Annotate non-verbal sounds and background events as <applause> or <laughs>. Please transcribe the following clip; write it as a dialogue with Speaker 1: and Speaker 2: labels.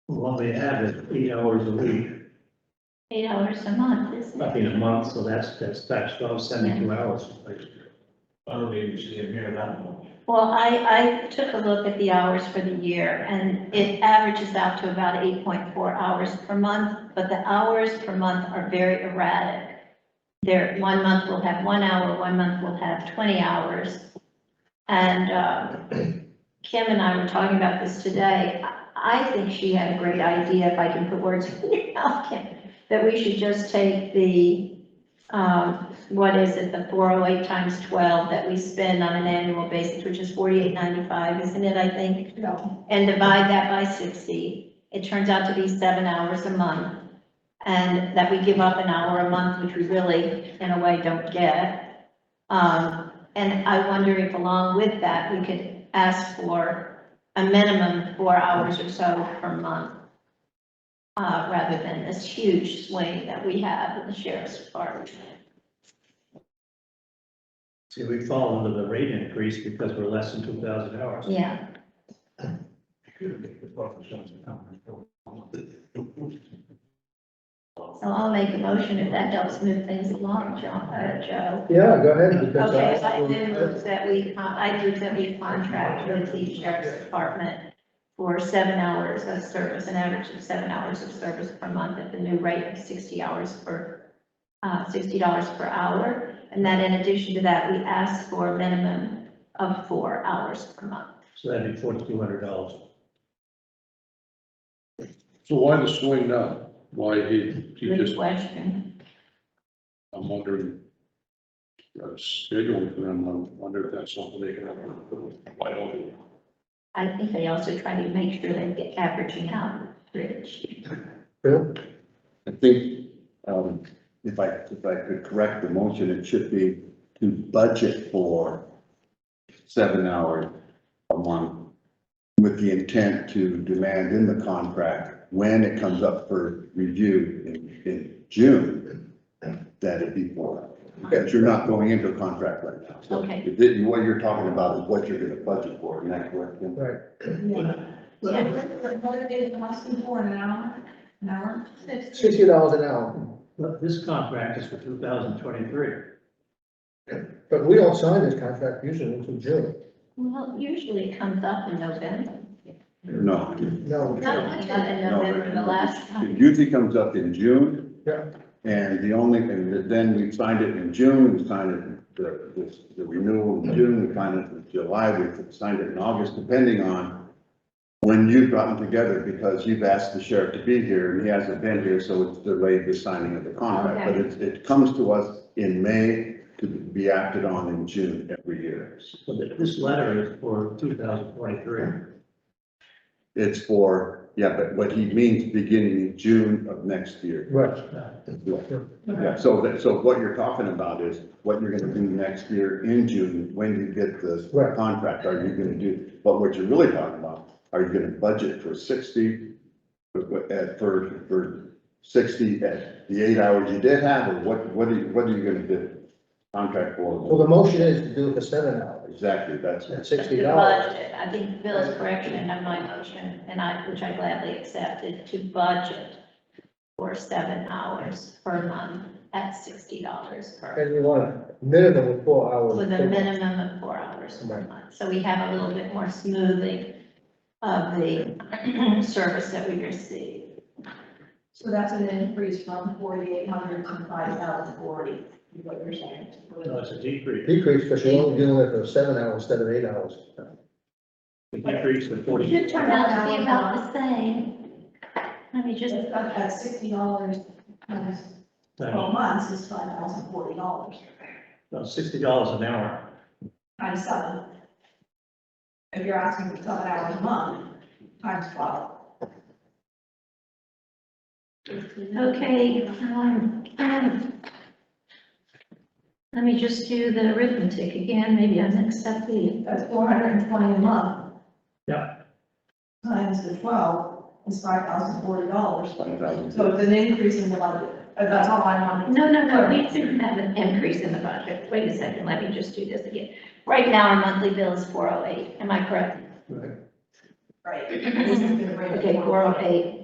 Speaker 1: what we have is eight hours a week,
Speaker 2: eight hours a month, isn't
Speaker 1: I
Speaker 2: it?
Speaker 1: mean, a month, so that's, that's, that's twelve seventy-two hours.
Speaker 3: I don't even see him here that much.
Speaker 2: Well, I, I took a look at the hours for the year, and it averages out to about eight point four hours per month, but the hours per month are very erratic. There, one month will have one hour, one month will have twenty hours. And, um, Kim and I were talking about this today, I I think she had a great idea, if I can put words in your <laughs> mouth, Kim, that we should just take the, um, what is it, the four oh eight times twelve that we spend on an annual basis, which is forty-eight ninety-five, isn't it, I think?
Speaker 4: No.
Speaker 2: And divide that by sixty, it turns out to be seven hours a month. And that we give up an hour a month, which we really, in a way, don't get. Um, and I wonder if along with that, we could ask for a minimum four hours or so per month. Uh, rather than this huge swing that we have in the sheriff's department.
Speaker 1: See, we fall under the rate increase because we're less than two thousand hours.
Speaker 2: Yeah. So I'll make a motion if that helps move things along, John, uh, Joe.
Speaker 5: Yeah, go ahead. because
Speaker 2: Okay, I
Speaker 5: will-
Speaker 2: do move that we, con- I do that we contract with the sheriff's department for seven hours of service, an average of seven hours of service per month at the new rate of sixty hours per, uh, sixty dollars per hour. And then in addition to that, we ask for a minimum of four hours per month.
Speaker 1: So that'd be forty-two hundred dollars.
Speaker 6: So why the swing now? Why he, he
Speaker 2: Good
Speaker 6: just,
Speaker 2: question.
Speaker 6: I'm wondering. uh, Scheduling for them, I wonder if that's something they can have. Why don't we?
Speaker 2: I think they also try to make sure they get averaging out, Rich.
Speaker 5: Bill?
Speaker 7: I think, um, if I, if I could correct the motion, it should be to budget for seven hours a month with the intent to demand in the contract, when it comes up for review in, in June, that it be four. Because you're not going into a contract right now. So
Speaker 2: Okay.
Speaker 7: if it- What you're talking about is what you're gonna budget for, isn't that correct? Kim?
Speaker 5: Right.
Speaker 4: Yeah.
Speaker 2: Yeah.
Speaker 4: What are they asking for an hour, an hour?
Speaker 5: Sixty dollars an hour,
Speaker 1: Well, this contract is for two thousand twenty-three.
Speaker 5: but we don't sign this contract usually until June.
Speaker 2: Well, usually it comes up in November.
Speaker 7: No,
Speaker 5: No. we
Speaker 2: Not
Speaker 5: don't.
Speaker 2: in November, the last time.
Speaker 7: It usually comes up in June.
Speaker 5: Yeah.
Speaker 7: And the only, and then we signed it in June, we signed it, the, this- the renewal in June, we signed it in July, we signed it in August, depending on when you've gotten together, because you've asked the sheriff to be here, and he hasn't been here, so it's delayed the signing of the contract. But it, it comes to us in May to be acted on in June every year.
Speaker 1: So th- this letter is for two thousand twenty-three.
Speaker 7: It's for, yeah, but what he means, beginning in June of next year.
Speaker 5: Right.
Speaker 1: Uh,
Speaker 7: Yeah, so that, so what you're talking about is what you're gonna do next year in June, when you get this
Speaker 5: Right.
Speaker 7: contract, are you gonna do? But what you're really talking about, are you gonna budget for sixty, for- at, for, for sixty, at the eight hours you did have, or what, what are you, what are you gonna do? Contract
Speaker 5: Well,
Speaker 7: for,
Speaker 5: the motion is to do it for seven hours
Speaker 7: exactly, that's,
Speaker 5: at
Speaker 2: The
Speaker 5: sixty dollars.
Speaker 2: budget, I think Bill's correction of my motion, and I, which I gladly accepted, to budget for seven hours per month at sixty dollars per,
Speaker 5: And you want a minimum of four hours.
Speaker 2: with a minimum of four hours per
Speaker 5: Right.
Speaker 2: month. So we have a little bit more smoothing of the <clears throat> service that we receive.
Speaker 4: So that's an increase from forty-eight hundred to five thousand forty, is what you're saying.
Speaker 1: No, it's a decrease.
Speaker 5: Decrease, because you're only doing it for seven hours instead of eight hours.
Speaker 1: A decrease of
Speaker 2: It
Speaker 1: forty.
Speaker 2: should turn out to be about the same. Let me just,
Speaker 4: Just up at sixty dollars times twelve
Speaker 1: About
Speaker 4: months is five thousand forty dollars,
Speaker 1: uh, sixty dollars an hour.
Speaker 4: times seven. If you're asking for seven hours a month, times twelve.
Speaker 2: okay, um, um, let me just do the arithmetic again, maybe I'm accepting.
Speaker 4: That's four hundred and twenty a month.
Speaker 1: Yeah.
Speaker 4: Times the twelve is five thousand forty dollars.
Speaker 7: one thousand.
Speaker 4: So it's an increase in the budget, Uh, that's all I wanted.
Speaker 2: No, no, no, we didn't have an increase in the budget. Wait a second, let me just do this again. Right now, our monthly bill is four oh eight, am I correct?
Speaker 4: Right. This is gonna bring it
Speaker 2: Okay,
Speaker 4: down.
Speaker 2: four oh eight.